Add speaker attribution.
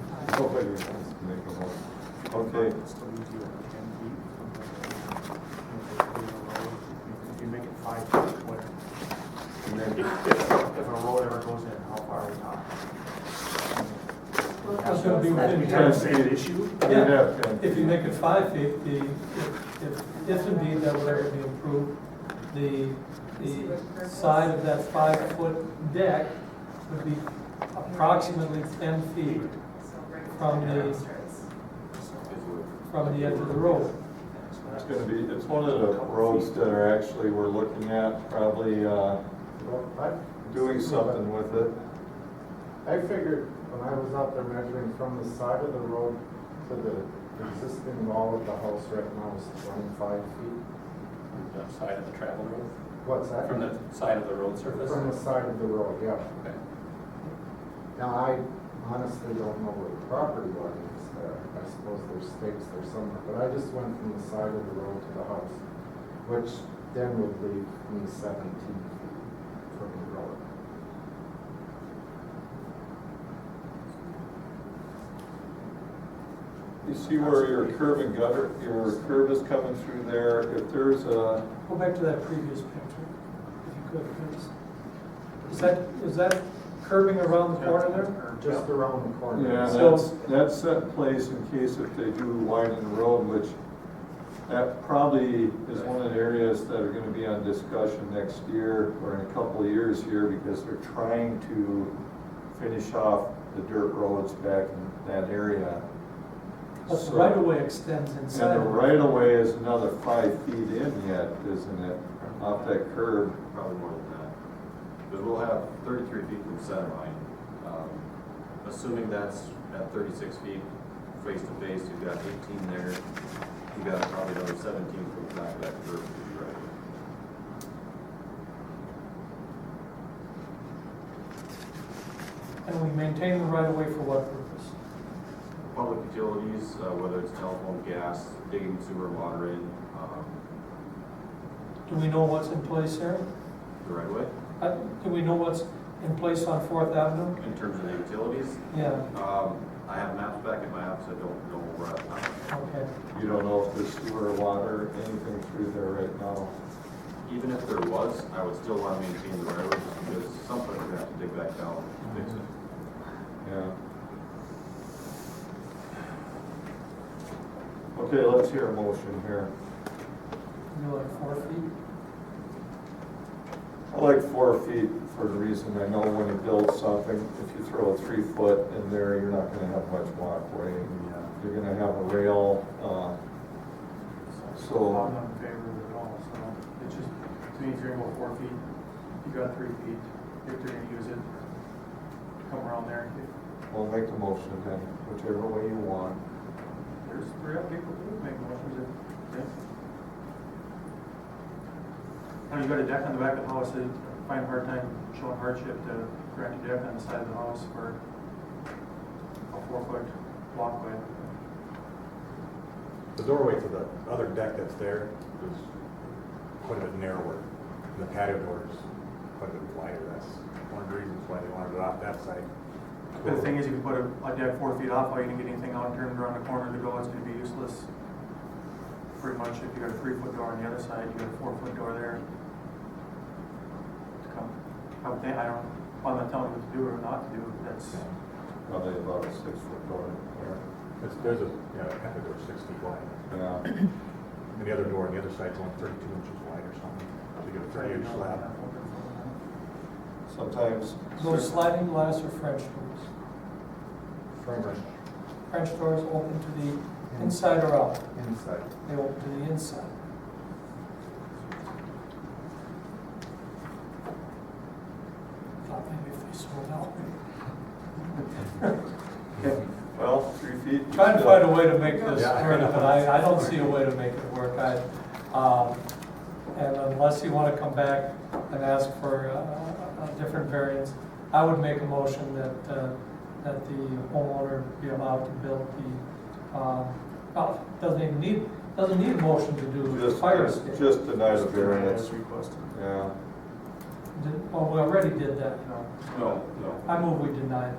Speaker 1: wait, make a motion. Okay,
Speaker 2: It's still easier at ten feet. If you make it five feet, what,
Speaker 1: and
Speaker 2: if,
Speaker 1: then,
Speaker 2: if if a road ever goes in, how far are we talking?
Speaker 3: Well,
Speaker 4: That's gonna be
Speaker 3: that's-
Speaker 4: within
Speaker 2: Is that a sand issue?
Speaker 1: we have ten.
Speaker 4: If you make it five feet, the, if, if- if indeed that would ever be approved, the, the side of that five-foot deck would be approximately ten feet
Speaker 3: so right
Speaker 4: from
Speaker 3: there,
Speaker 4: the-
Speaker 3: straight.
Speaker 4: from the edge of the road.
Speaker 1: It's gonna be, it's one of the roads that are actually, we're looking at probably, uh, doing something with it.
Speaker 5: I figured when I was out there measuring from the side of the road to the existing wall of the house right now is twenty-five feet.
Speaker 6: The side of the travel road,
Speaker 5: What's that?
Speaker 6: from the side of the road surface?
Speaker 5: From the side of the road, yeah.
Speaker 6: Okay.
Speaker 5: Now, I honestly don't know where the property line is there. I suppose there's stakes there somewhere, but I just went from the side of the road to the house, which then would leave me seventeen feet from the road.
Speaker 1: You see where your curb and gutter, your curb is coming through there, if there's a,
Speaker 4: Go back to that previous picture, if you could, please. Is that, is that curving around the corner there?
Speaker 5: Just around the corner.
Speaker 1: yeah, that's, that's set in place in case if they do widen the road, which that probably is one of the areas that are gonna be on discussion next year or in a couple of years here because they're trying to finish off the dirt roads back in that area.
Speaker 4: But the
Speaker 1: So-
Speaker 4: right of way extends
Speaker 1: And
Speaker 4: inside.
Speaker 1: the
Speaker 4: of it.
Speaker 1: right of way is another five feet in yet, isn't it, off that curb?
Speaker 7: Probably more than that. Because we'll have thirty-three feet from the center line. Um, Assuming that's at thirty-six feet face to face, you've got eighteen there. You've got probably another seventeen from the back of that curve to the right.
Speaker 4: And we maintain the right of way for what purpose?
Speaker 7: Public utilities, uh, whether it's telephone, gas, digging sewer, water in, um,
Speaker 4: Do we know what's in place there?
Speaker 7: the right way.
Speaker 4: Uh, Do we know what's in place on Fourth Avenue?
Speaker 7: In terms of the utilities,
Speaker 4: Yeah,
Speaker 7: um, I have maps back in my apps, I don't know where I'm at.
Speaker 4: okay.
Speaker 1: You don't know if there's sewer, water, anything through there right now.
Speaker 7: Even if there was, I would still want to maintain the railroad just because something we're gonna have to dig back down and fix it.
Speaker 1: Yeah. Okay, let's hear a motion here.
Speaker 4: You like four feet?
Speaker 1: I like four feet for the reason I know when you build something, if you throw a three foot in there, you're not gonna have much walkway. You're gonna have a rail, uh, So-
Speaker 2: I'm not in favor of it at all, so it's just, to me, if you're gonna go four feet, you got three feet, if they're gonna use it, come around there, if
Speaker 1: well, make the motion then, whichever way you want.
Speaker 2: there's three other people who would make motions, if, if. When you got a deck on the back of the house, I find a hard time showing hardship to grant a deck on the side of the house for a four-foot walkway.
Speaker 8: The doorway to the other deck that's there is quite a bit narrower, and the patio door is quite a bit wider. That's one of the reasons why they wanted it off that side.
Speaker 2: But the thing is, if you put a, a deck four feet off, all you can get anything out and turn it around the corner to go, it's gonna be useless. Pretty much, if you got a three foot door on the other side, you got a four foot door there. To come, I would think, I don't, I'm not telling you what to do or not to do, that's,
Speaker 1: Probably about a six foot door in
Speaker 8: It's- There's a, yeah, a patio door six feet wide,
Speaker 1: there. Yeah.
Speaker 8: and the other door on the other side's only thirty-two inches wide or something, so you get a thirty-inch slab.
Speaker 1: Sometimes.
Speaker 4: Those sliding glass or French doors?
Speaker 5: Framework
Speaker 4: French doors open to
Speaker 8: Mm-hmm.
Speaker 4: the inside or out?
Speaker 5: inside.
Speaker 4: They open to the inside. Thought maybe if they sold out.
Speaker 1: Well, three feet.
Speaker 4: Trying to find a way to make this
Speaker 8: Yeah.
Speaker 4: work, but I, I don't see a way to make it work. I, um, and unless you want to come back and ask for uh, a, a different variance, I would make a motion that, uh, that the homeowner be allowed to build the, um, well, doesn't even need, doesn't need a motion to do the
Speaker 1: Just,
Speaker 4: fire escape.
Speaker 1: just deny the variance,
Speaker 2: requested.
Speaker 1: yeah.
Speaker 4: Did- Oh, we already did that, no.
Speaker 7: No, no.
Speaker 4: I move we deny it.